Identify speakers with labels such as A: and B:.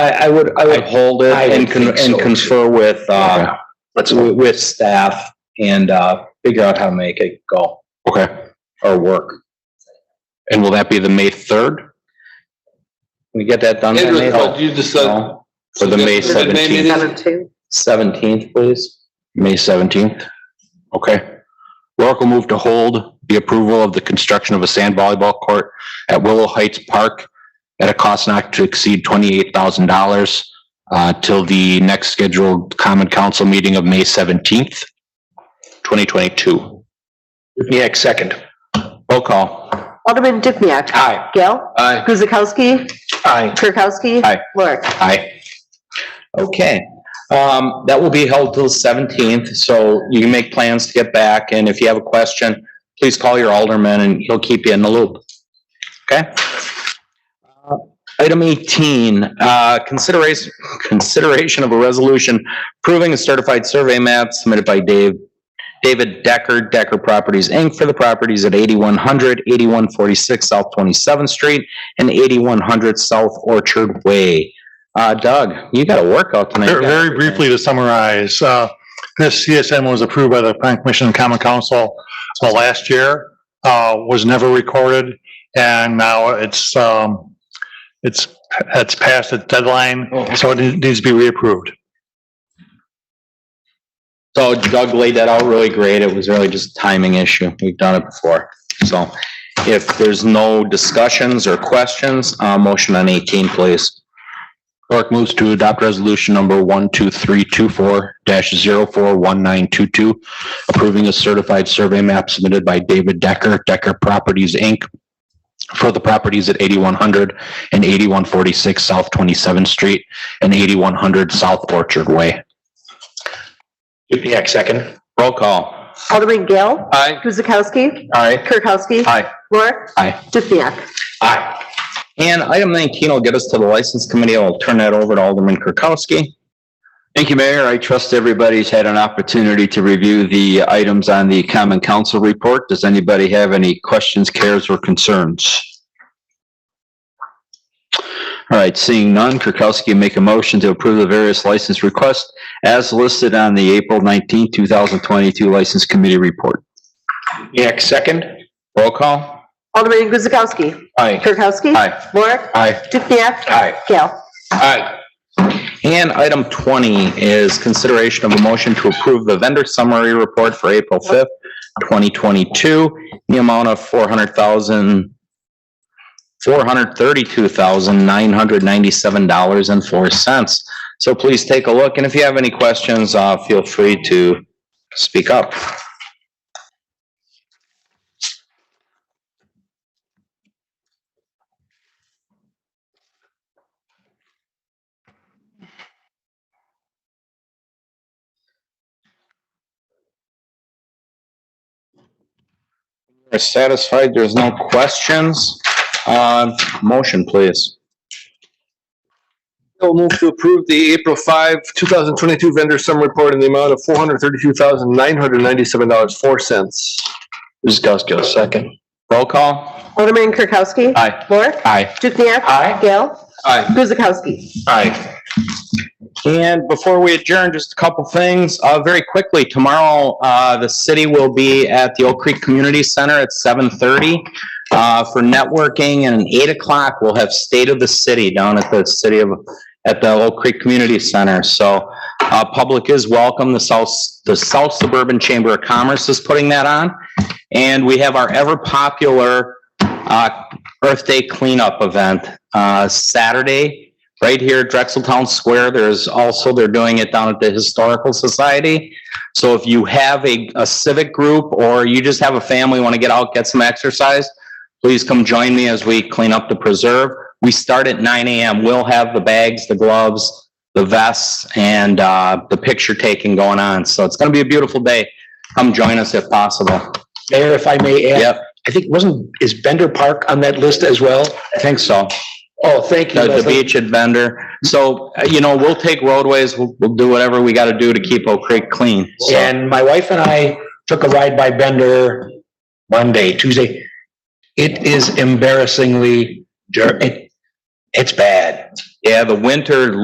A: I, I would, I
B: I'd
A: would,
B: hold it
A: I
B: and
A: would
B: con-
A: think so,
B: and
A: too.
B: confer with, uh,
C: Yeah. Let's,
B: with with staff and, uh, figure out how to make it go
C: okay.
B: or work.
C: And will that be the May third?
B: Can we get that done by
D: Andrew, but
B: May
D: you uh, decide.
C: For the May
D: Is it meeting?
B: seventeenth, please?
C: May seventeenth? Okay. Rourke will move to hold the approval of the construction of a sand volleyball court at Willow Heights Park at a cost not to exceed twenty-eight thousand dollars uh, till the next scheduled common council meeting of May seventeenth, twenty twenty-two.
B: Yeah, second.
C: Roll call.
E: Alderman Dukniak.
B: Aye.
E: Gail.
D: Aye.
E: Guzekowski.
B: Aye.
E: Kirkowski.
C: Aye.
E: Lorik.
C: Aye.
B: Okay, um, that will be held till the seventeenth, so you can make plans to get back, and if you have a question, please call your alderman and he'll keep you in the loop. Okay? Uh, Item eighteen, uh, consideration, consideration of a resolution approving a certified survey map submitted by Dave, David Decker, Decker Properties, Inc. for the properties at 8100, 8146 South Twenty-seventh Street and eighty-one hundred South Orchard Way. Uh, Doug, you got a workout tonight.
F: Very very briefly to summarize, uh, this CSM was approved by the Plan Commission and Common Council uh, last year, uh, was never recorded, and now it's, um, it's, it's past its deadline, so it needs to be reapproved.
B: So Doug laid that out really great. It was really just a timing issue. We've done it before. So if there's no discussions or questions, uh, motion on eighteen, please.
C: Clerk moves to adopt resolution number one, two, three, two, four, dash, zero, four, one, nine, two, two, approving a certified survey map submitted by David Decker, Decker Properties, Inc. for the properties at 8100 and 8146 South Twenty-seventh Street and eighty-one hundred South Orchard Way.
B: Dukenyak, second. Roll call.
E: Alderman Gail.
D: Aye.
E: Guzekowski.
B: Aye.
E: Kirkowski.
B: Aye.
E: Lorik.
C: Aye.
E: Dukniak.
B: Aye. And item nineteen will get us to the license committee. I'll turn that over to Alderman Kirkowski.
G: Thank you, Mayor. I trust everybody's had an opportunity to review the items on the Common Council report. Does anybody have any questions, cares, or concerns? All right, seeing none, Kirkowski make a motion to approve the various license requests as listed on the April 19, 2022 License Committee report.
B: Dukenyak, second. Roll call.
E: Alderman Guzekowski.
B: Aye.
E: Kirkowski.
G: Aye.
E: Lorik.
B: Aye.
E: Dukniak.
B: Aye.
E: Gail.
B: Aye. And item twenty is consideration of a motion to approve the vendor summary report for April fifth, twenty twenty-two, the amount of four hundred thousand, four hundred thirty-two thousand, nine hundred ninety-seven dollars and four cents. So please take a look, and if you have any questions, uh, feel free to speak up. Are satisfied, there's no questions? Uh, motion, please.
D: I'll move to approve the April five, two thousand twenty-two vendor sum report in the amount of four hundred thirty-two thousand, nine hundred ninety-seven dollars, four cents.
B: Guzekowski, second. Roll call.
E: Alderman Kirkowski.
B: Aye.
E: Lorik.
B: Aye.
E: Dukniak.
B: Aye.
E: Gail.
D: Aye.
E: Guzekowski.
B: Aye. And before we adjourn, just a couple things, uh, very quickly, tomorrow, uh, the city will be at the Oak Creek Community Center at seven thirty. Uh, for networking and at eight o'clock, we'll have State of the City down at the city of, at the Oak Creek Community Center, so. Uh, public is welcome, the South, the South Suburban Chamber of Commerce is putting that on. And we have our ever popular, uh, Earth Day cleanup event, uh, Saturday, right here at Drexel Town Square. There's also, they're doing it down at the Historical Society. So if you have a, a civic group or you just have a family, want to get out, get some exercise, please come join me as we clean up the preserve. We start at nine AM. We'll have the bags, the gloves, the vests and, uh, the picture taking going on. So it's going to be a beautiful day. Come join us if possible.
A: Mayor, if I may add,
B: Yep,
A: I think wasn't, is Bender Park on that list as well?
B: I think so.
A: Oh, thank you.
B: The, the
A: Leslie.
B: beach at Bender. So, uh, you know, we'll take roadways, we'll, we'll do whatever we gotta do to keep Oak Creek clean. So-
A: And my wife and I took a ride by Bender Monday, Tuesday. It is embarrassing.
H: embarrassingly dirt. It, it's bad.
B: Yeah, the winter